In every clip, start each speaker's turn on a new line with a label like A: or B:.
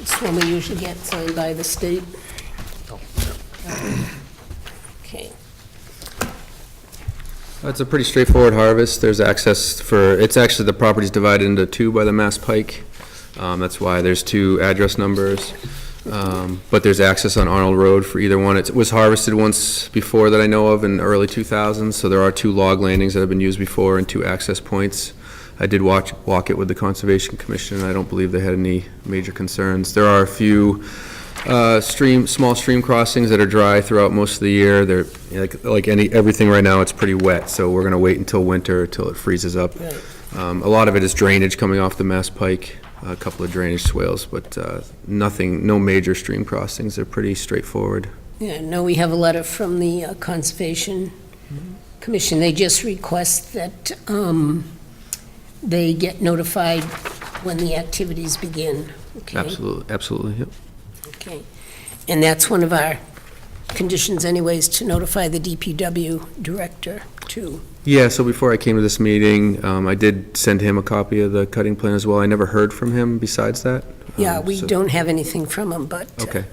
A: It's one we usually get signed by the state. Okay.
B: It's a pretty straightforward harvest. There's access for, it's actually, the property's divided into two by the Mass Pike. Um, That's why there's two address numbers. Um, But there's access on Arnold Road for either one. It was harvested once before that I know of in the early 2000s, so there are two log landings that have been used before and two access points. I did watch, walk it with the Conservation Commission, and I don't believe they had any major concerns. There are a few uh, stream, small stream crossings that are dry throughout most of the year. They're, like, like any, everything right now, it's pretty wet, so we're gonna wait until winter, till it freezes up.
A: Right.
B: Um, A lot of it is drainage coming off the Mass Pike, a couple of drainage swales, but uh, nothing, no major stream crossings. They're pretty straightforward.
A: Yeah, no, we have a letter from the uh, Conservation Commission. They just request that um, they get notified when the activities begin. Okay?
B: Absolutely, absolutely, yep.
A: Okay. And that's one of our conditions anyways, to notify the DPW director too.
B: Yeah, so before I came to this meeting, um, I did send him a copy of the cutting plan as well. I never heard from him besides that.
A: Yeah,
B: Um,
A: we
B: so-
A: don't have anything from them, but. uh,
B: Okay.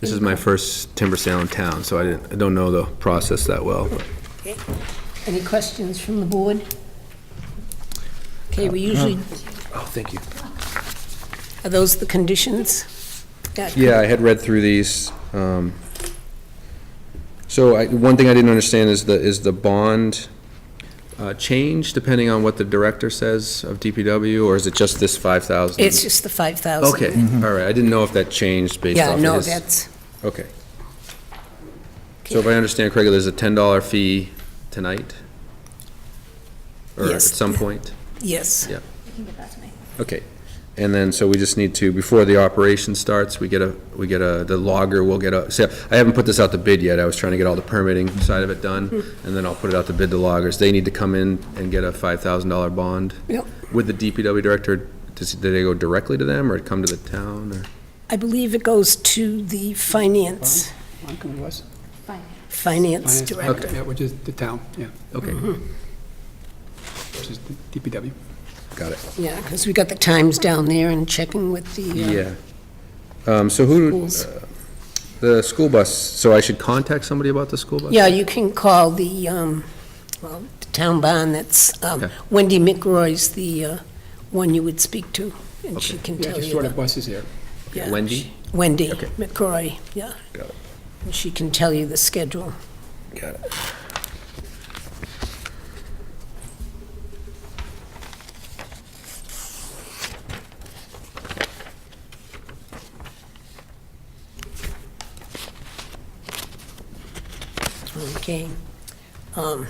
B: This is my first timber sale in town, so I didn't, I don't know the process that well. but-
A: Any questions from the board? Okay, we usually,
B: Oh, thank you.
A: are those the conditions? That-
B: Yeah, I had read through these. um, So I, one thing I didn't understand is the, is the bond uh, change depending on what the director says of DPW, or is it just this 5,000?
A: It's just the 5,000.
B: Okay, all right, I didn't know if that changed based
A: Yeah,
B: off of
A: no,
B: his.
A: that's,
B: Okay. So if I understand correctly, there's a $10 fee tonight? Or at
A: Yes.
B: some point?
A: yes.
B: Yeah.
C: You can give that to me.
B: Okay, and then, so we just need to, before the operation starts, we get a, we get a, the logger will get a, so, I haven't put this out to bid yet, I was trying to get all the permitting side of it done,
A: Hmm.
B: and then I'll put it out to bid to loggers. They need to come in and get a five thousand dollar bond?
A: Yep.
B: With the DPW director, does, do they go directly to them, or it come to the town, or?
A: I believe it goes to the finance,
D: Montgomery was.
C: Fine.
A: finance
D: Finance
A: director. Mm-hmm.
D: Yeah, which is the town, yeah,
B: Okay,
D: which is the DPW.
B: got it,
A: Yeah, because we got the times down there and checking with the uh,
B: yeah. Um, so who,
A: schools.
B: the school bus, so I should contact somebody about the school bus?
A: Yeah, you can call the, um, well, the town barn, that's um,
B: Okay.
A: Wendy McRoy's the uh, one you would speak to, and she can
D: Yeah,
A: tell
D: just
A: you.
D: sort
A: the-
D: of buses there.
A: yeah,
B: Wendy?
A: she- Wendy
B: Okay.
A: McRoy, yeah.
B: Got it.
A: And she can tell you the schedule.
B: Got it.
A: Okay. Um,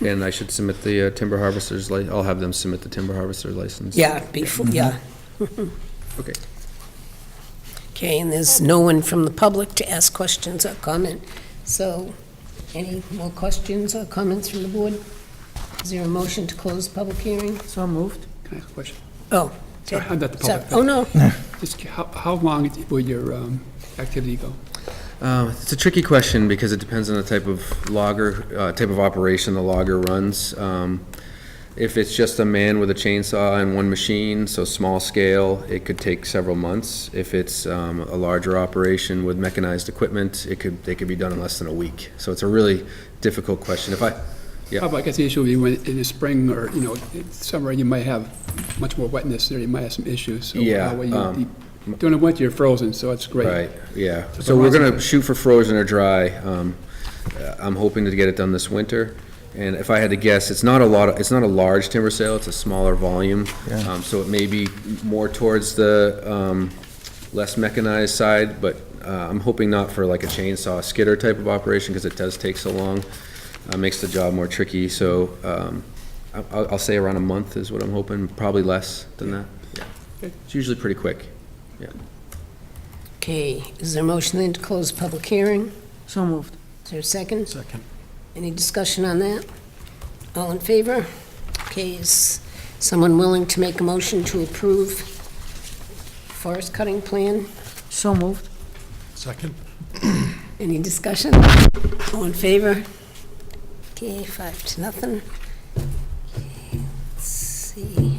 B: And I should submit the uh, timber harvester's li, I'll have them submit the timber harvester's license?
A: Yeah, before, yeah.
B: Mm-hmm. Okay.
A: Okay, and there's no one from the public to ask questions or comment. So, any more questions or comments from the board? Is there a motion to close public hearing?
D: So moved. Can I ask a question?
A: Oh.
D: Sorry, I'm not the
A: Sorry.
D: public.
A: Oh, no,
D: Just how, how long it- will your um, activity go?
B: Um, It's a tricky question because it depends on the type of logger, uh, type of operation the logger runs. Um, If it's just a man with a chainsaw and one machine, so small scale, it could take several months. If it's um, a larger operation with mechanized equipment, it could, they could be done in less than a week. So it's a really difficult question. If I, Yeah.
D: Probably, I guess the issue would be when, in the spring or, you know, in summer, you might have much more wetness there, you might have some issues. So
B: Yeah,
D: how will you-
B: um,
D: you- During the winter, you're frozen, so it's great.
B: Right, yeah.
D: So
B: So we're
D: frozen.
B: gonna shoot for frozen or dry. Um, uh, I'm hoping to get it done this winter. And if I had to guess, it's not a lot, of- it's not a large timber sale, it's a smaller volume. Um, so it may be more towards the, um, less mechanized side, but, uh, I'm hoping not for like a chainsaw skidder type of operation, because it does take so long. Uh, makes the job more tricky, so, um, I- I'll, I'll say around a month is what I'm hoping, probably less than that. Yeah.
D: Okay.
B: It's usually pretty quick.
A: okay, is there a motion then to close public hearing?
E: So moved.
A: Is there a second?
E: Second.
A: Any discussion on that? All in favor? Okay, is someone willing to make a motion to approve forest cutting plan?
E: So moved.
F: Second.
A: Any discussion? All in favor? Okay, five to nothing. Okay, Let's see.